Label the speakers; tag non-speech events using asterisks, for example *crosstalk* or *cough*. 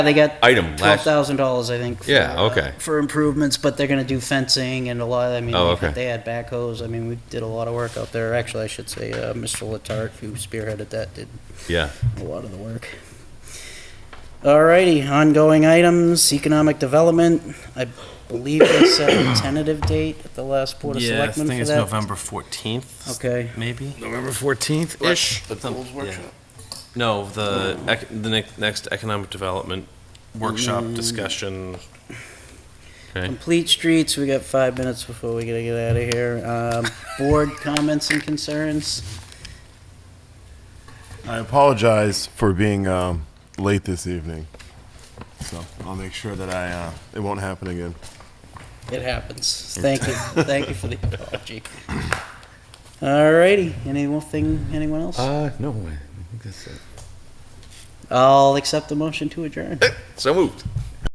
Speaker 1: They got
Speaker 2: item
Speaker 1: twelve
Speaker 2: last.
Speaker 1: thousand dollars, I think. for,
Speaker 2: Yeah,
Speaker 1: uh,
Speaker 2: okay.
Speaker 1: For improvements, but they're gonna do fencing and a lot, I mean,
Speaker 2: Oh, okay.
Speaker 1: they had backhoes, I mean, we did a lot of work out there. Actually, I should say, uh, Mr. Letarte, who spearheaded that, did
Speaker 2: Yeah.
Speaker 1: a lot of the work. Alrighty, ongoing items, economic development, I believe they set a
Speaker 2: *coughs*
Speaker 1: tentative date at the last Board of
Speaker 3: Yeah, I
Speaker 1: Selectmen
Speaker 3: think
Speaker 1: for
Speaker 3: it's
Speaker 1: that.
Speaker 3: November 14th.
Speaker 1: Okay.
Speaker 3: Maybe?
Speaker 2: November fourteenth ish.
Speaker 3: The Goals Workshop? No, the, ec- the ne- next Economic Development Workshop
Speaker 1: Mm.
Speaker 3: discussion.
Speaker 2: Okay.
Speaker 1: Complete streets, we got five minutes before we gotta get out of here. Um, board comments and concerns?
Speaker 4: I apologize for being um, late this evening. So I'll make sure that I uh, it won't happen again.
Speaker 1: It happens. Thank you, thank you for the apology. Alrighty, anything, anyone else?
Speaker 2: Uh, no way. I think that's it.
Speaker 1: I'll accept the motion to adjourn.
Speaker 2: So moved.